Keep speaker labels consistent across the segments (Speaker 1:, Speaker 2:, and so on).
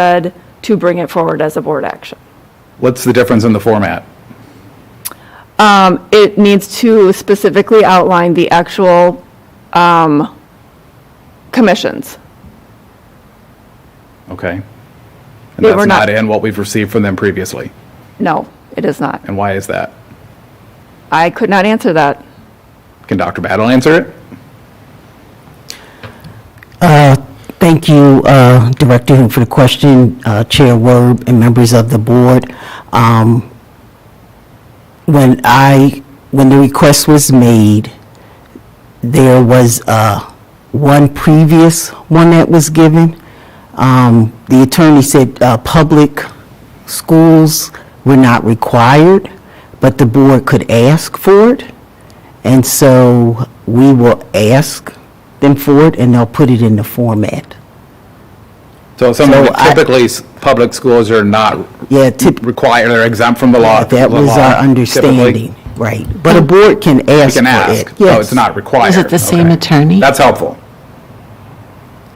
Speaker 1: said to bring it forward as a board action.
Speaker 2: What's the difference in the format?
Speaker 1: Um, It needs to specifically outline the actual um, commissions.
Speaker 2: Okay. And
Speaker 1: Yeah,
Speaker 2: that's
Speaker 1: we're not-
Speaker 2: not in what we've received from them previously.
Speaker 1: No, it is not.
Speaker 2: And why is that?
Speaker 1: I could not answer that.
Speaker 2: Can Dr. Battle answer it?
Speaker 3: Thank you, uh, Director, Hu, for the question, uh, Chair Werb, and members of the board. Um, When I, when the request was made, there was uh, one previous one that was given. Um, The attorney said uh, public schools were not required, but the board could ask for it. And so we will ask them for it, and they'll put it in the format.
Speaker 2: So some of
Speaker 3: So
Speaker 2: the
Speaker 3: I-
Speaker 2: typically, s- public schools are not
Speaker 3: Yeah, typ-
Speaker 2: required, they're exempt from the law.
Speaker 3: that was
Speaker 2: law,
Speaker 3: our
Speaker 2: typically.
Speaker 3: understanding, right. But a board can ask
Speaker 2: You can
Speaker 3: for
Speaker 2: ask,
Speaker 3: it.
Speaker 2: so
Speaker 3: Yes.
Speaker 2: it's not required.
Speaker 4: Is it the same
Speaker 2: Okay.
Speaker 4: attorney?
Speaker 2: That's helpful.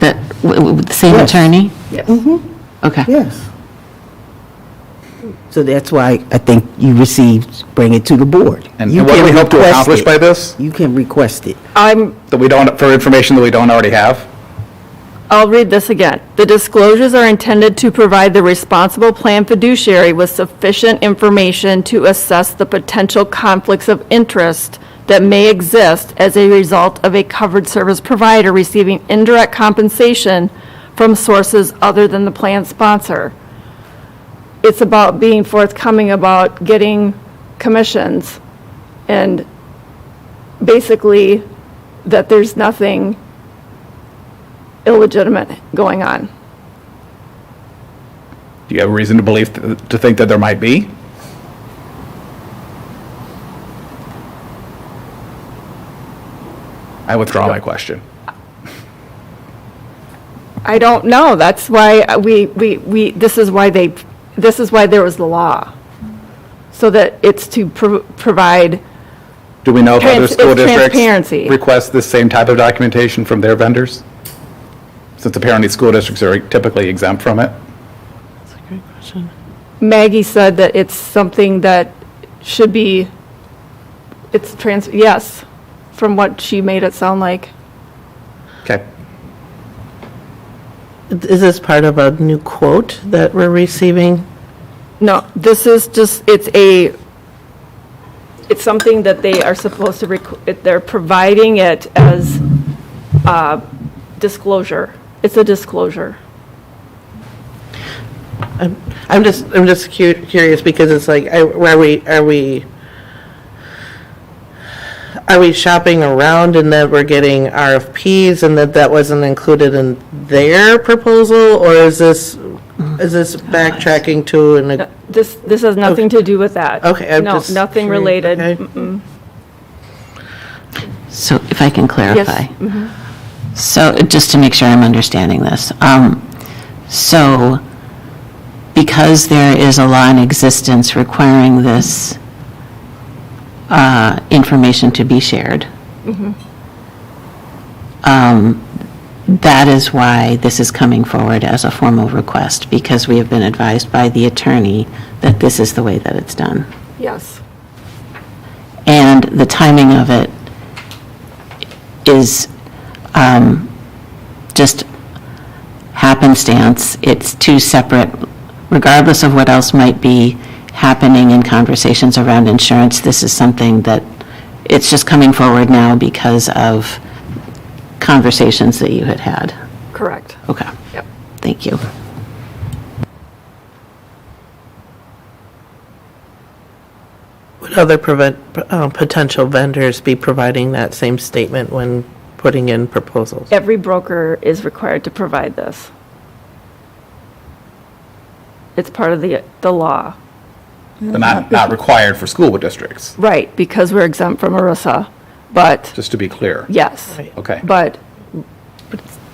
Speaker 4: That, w- w- with the same
Speaker 3: Yes.
Speaker 4: attorney? Yes. Okay.
Speaker 3: Yes. So that's why I think you received, bring it to the board.
Speaker 2: And
Speaker 3: You
Speaker 2: and what do
Speaker 3: can
Speaker 2: we hope to
Speaker 3: request
Speaker 2: accomplish
Speaker 3: it.
Speaker 2: by this?
Speaker 3: You can request it.
Speaker 1: I'm,
Speaker 2: That we don't, for information that we don't already have?
Speaker 1: I'll read this again. The disclosures are intended to provide the responsible plan fiduciary with sufficient information to assess the potential conflicts of interest that may exist as a result of a covered service provider receiving indirect compensation from sources other than the plan sponsor. It's about being forthcoming about getting commissions and basically that there's nothing illegitimate going on.
Speaker 2: Do you have reason to believe, th- to think that there might be? I withdraw my question.
Speaker 1: I don't know, that's why we, we, we, this is why they, this is why there was the law. So that it's to pro- provide,
Speaker 2: Do we know if other
Speaker 1: Trans-
Speaker 2: school
Speaker 1: it's
Speaker 2: districts
Speaker 1: transparency.
Speaker 2: request this same type of documentation from their vendors? Since apparently school districts are typically exempt from it?
Speaker 1: Maggie said that it's something that should be, it's trans, yes, from what she made it sound like.
Speaker 2: Okay.
Speaker 5: Is this part of a new quote that we're receiving?
Speaker 1: No, this is just, it's a, it's something that they are supposed to, requ- it- they're providing it as uh, disclosure. It's a disclosure.
Speaker 5: I'm I'm just, I'm just cu- curious because it's like, I- are we, are we, are we shopping around and that we're getting RFPs and that that wasn't included in their proposal? Or is this, is this backtracking to an,
Speaker 1: No, This, this has nothing to do with that.
Speaker 5: Okay, I'm
Speaker 1: No,
Speaker 5: just
Speaker 1: nothing
Speaker 5: curious,
Speaker 1: related.
Speaker 5: okay.
Speaker 1: Mm-mm.
Speaker 4: So if I can clarify.
Speaker 1: Mm-hmm.
Speaker 4: So just to make sure I'm understanding this. um, So because there is a law in existence requiring this uh, information to be shared, um, that is why this is coming forward as a formal request, because we have been advised by the attorney that this is the way that it's done.
Speaker 1: Yes.
Speaker 4: and the timing of it is um, just happenstance. It's two separate, regardless of what else might be happening in conversations around insurance, this is something that, it's just coming forward now because of conversations that you had had.
Speaker 1: Correct.
Speaker 4: Okay.
Speaker 1: Yep.
Speaker 4: Thank you.
Speaker 5: would other prevent, uh, potential vendors be providing that same statement when putting in proposals?
Speaker 1: Every broker is required to provide this. It's part of the, the law.
Speaker 2: But not, not required for school districts,
Speaker 1: Right, because we're exempt from ERISA, but
Speaker 2: just to be clear.
Speaker 1: yes.
Speaker 2: Okay.
Speaker 1: But,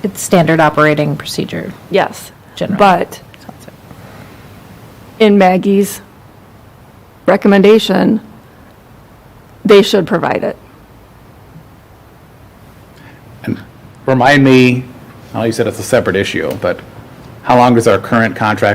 Speaker 6: It's standard operating procedure.
Speaker 1: yes.
Speaker 6: Generally.
Speaker 1: But in Maggie's recommendation, they should provide it.
Speaker 2: Remind me, oh, you said it's a separate issue, but How long does our current contract